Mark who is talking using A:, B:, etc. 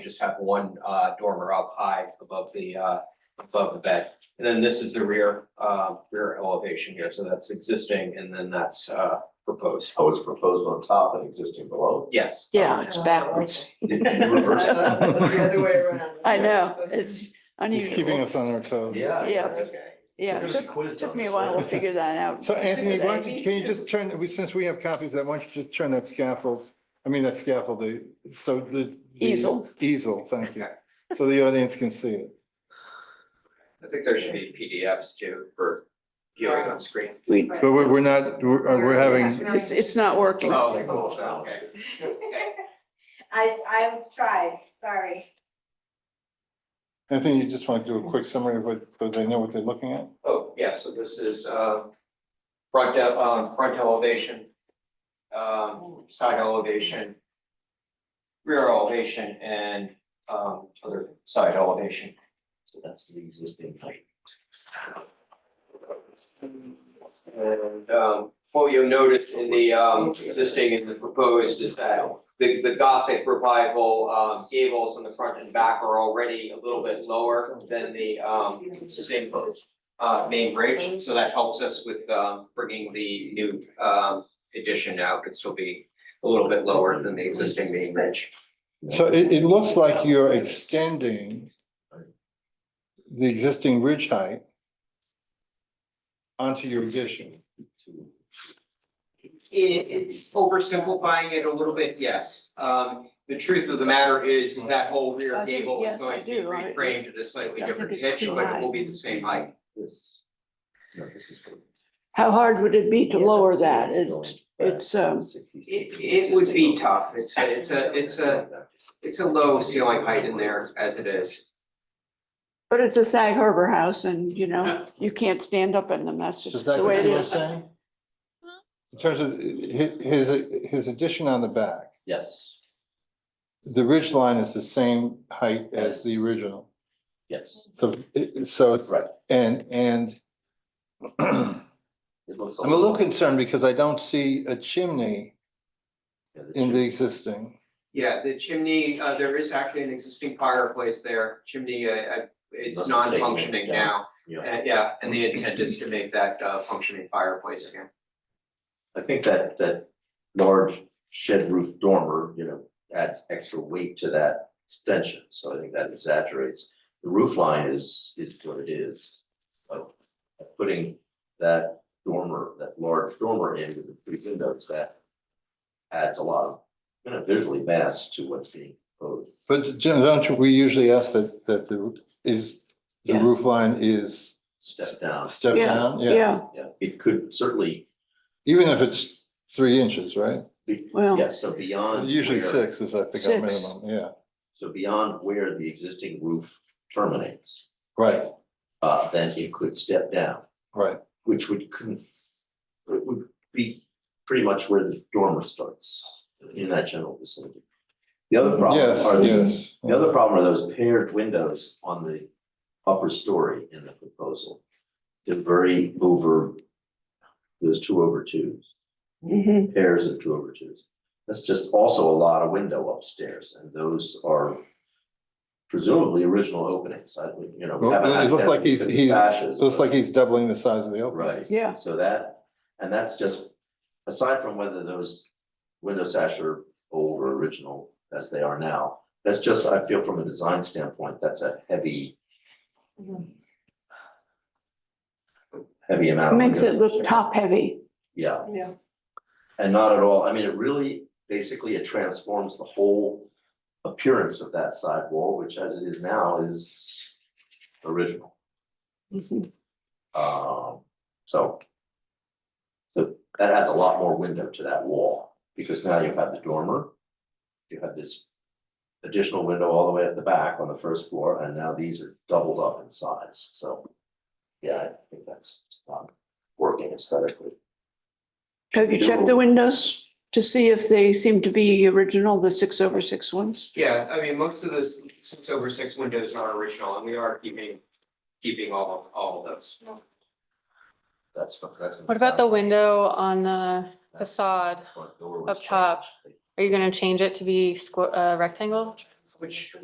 A: just have one uh dormer up high above the uh above the bed. And then this is the rear uh rear elevation here, so that's existing and then that's uh proposed.
B: Oh, it's proposed on top and existing below.
A: Yes.
C: Yeah, it's backwards.
B: Did you reverse that?
D: That's the other way around.
C: I know, it's
E: He's keeping
C: unusual.
E: us on our toes.
B: Yeah.
C: Yeah.
B: okay. So
C: Yeah, it
B: there's a
C: took,
B: quiz
C: took
B: on
C: me a
B: this
C: while to
B: later.
C: figure that out.
E: So Anthony, why don't you,
D: Me
E: can you
D: too.
E: just turn, we- since we have copies, I want you to turn that scaffold, I mean, that scaffold, the, so the. the-
C: Easel.
E: Easel, thank you. So the audience can see it.
A: I think there should be PDFs too for viewing on screen.
C: We,
E: But we're, we're not, we're, uh, we're having,
C: it's, it's not working.
A: Oh, cool, okay.
D: I, I've tried, sorry.
E: Anthony, you just want to do a quick summary of what, so they know what they're looking at?
A: Oh, yeah, so this is uh front de- um front elevation. Um side elevation. Rear elevation and um other side elevation.
B: So that's the existing height.
A: And um, what you'll notice in the um existing and the proposed is that the the Gothic revival um gables on the front and back are already a little bit lower than the um sustained uh main bridge, so that helps us with um bringing the new um addition out, it'd still be a little bit lower than the existing main bridge.
E: So it, it looks like you're extending the existing ridge height onto your addition.
A: It it's oversimplifying it a little bit, yes. Um the truth of the matter is, is that whole rear
C: I think-
A: gable is
C: yes,
A: going
C: I
A: to be
C: do. I-
A: reframed at a slightly
C: I think
A: different
C: it's
A: pitch,
C: too
A: but it will
C: high.
A: be the same height.
B: This, no, this is. good.
C: How hard would it be to
B: Yeah,
C: lower
B: that's-
C: that? It's, it's, um,
A: It it would be tough, it's a, it's a, it's a, it's a low ceiling height in there as it is.
C: but it's a Sag Harbor house and, you know, you can't stand up in them. That's
E: Is
C: just
E: that
C: the way
E: what
C: it
E: you were
C: is.
E: saying? In terms of hi- his, his addition on the back.
B: Yes,
E: The ridge line is the same height as the
B: Yes.
E: original,
B: yes,
E: so, it- so,
B: right.
E: and, and I'm
B: It looks
E: a little concerned because I don't see a chimney
B: Yeah, the
E: in the
B: chimney.
E: existing.
A: Yeah, the chimney, uh, there is actually an existing fireplace there, chimney, uh, uh, it's
B: Must have taken it
A: non-functioning
B: down.
A: now.
B: Yeah,
A: And yeah, and the intent is to make that uh functioning fireplace again.
B: I think that, that large shed roof dormer, you know, adds extra weight to that extension, so I think that exaggerates. The roof line is, is what it is, but putting that dormer, that large dormer in with the three windows, that adds a lot of, you know, visually mass to what's being proposed.
E: But Jim, don't you- we usually ask that, that the, is, the
C: Yeah.
E: roof line is
B: Step down,
E: stepped
C: Yeah,
E: down?
C: Yeah,
B: yeah, it could certainly,
E: Even if it's three inches, right?
B: be-
C: Well-
B: yeah, so beyond.
E: Usually
B: where-
E: six is, I think, our
C: Six.
E: minimum, yeah,
B: So beyond where the existing roof terminates.
E: right,
B: uh, then it could step down,
E: right.
B: which would conf, it would be pretty much where the dormer starts in that general vicinity. The other problem
E: Yes,
B: are the,
E: yes.
B: the other problem are those paired windows on the upper story in the proposal. They're very over, those two over twos
C: mhm,
B: pairs of two over twos. That's just also a lot of window upstairs, and those are presumably original openings, I, you know. we
E: Well,
B: haven't
E: it
B: had
E: looks
B: them
E: like he's-
B: because of
E: he's-
B: sashes,
E: Looks
B: but-
E: like he's doubling the size of the opening.
B: Right,
C: yeah,
B: so that, and that's just, aside from whether those window sash are old or original as they are now, that's just, I feel from a design standpoint, that's a heavy.
D: Mm-hmm.
B: Heavy amount. of
C: makes it
B: windows.
C: look top heavy.
B: Yeah.
D: Yeah.
B: And not at all, I mean, it really, basically, it transforms the whole appearance of that side wall, which as it is now is original.
C: Mhm.
B: Um, so. So that adds a lot more window to that wall, because now you have the dormer. You have this additional window all the way at the back on the first floor, and now these are doubled up in size, so. Yeah, I think that's just not working aesthetically.
C: Have you checked the windows to see if they seem to be original, the six over six ones?
A: Yeah, I mean, most of those six over six windows are original and we are keeping, keeping all of, all of those.
B: That's, that's.
F: What about the window on the facade?
B: Front door
F: up
B: was
F: top?
B: changed.
F: Are you gonna change it to be squ- uh, rectangle?
A: Which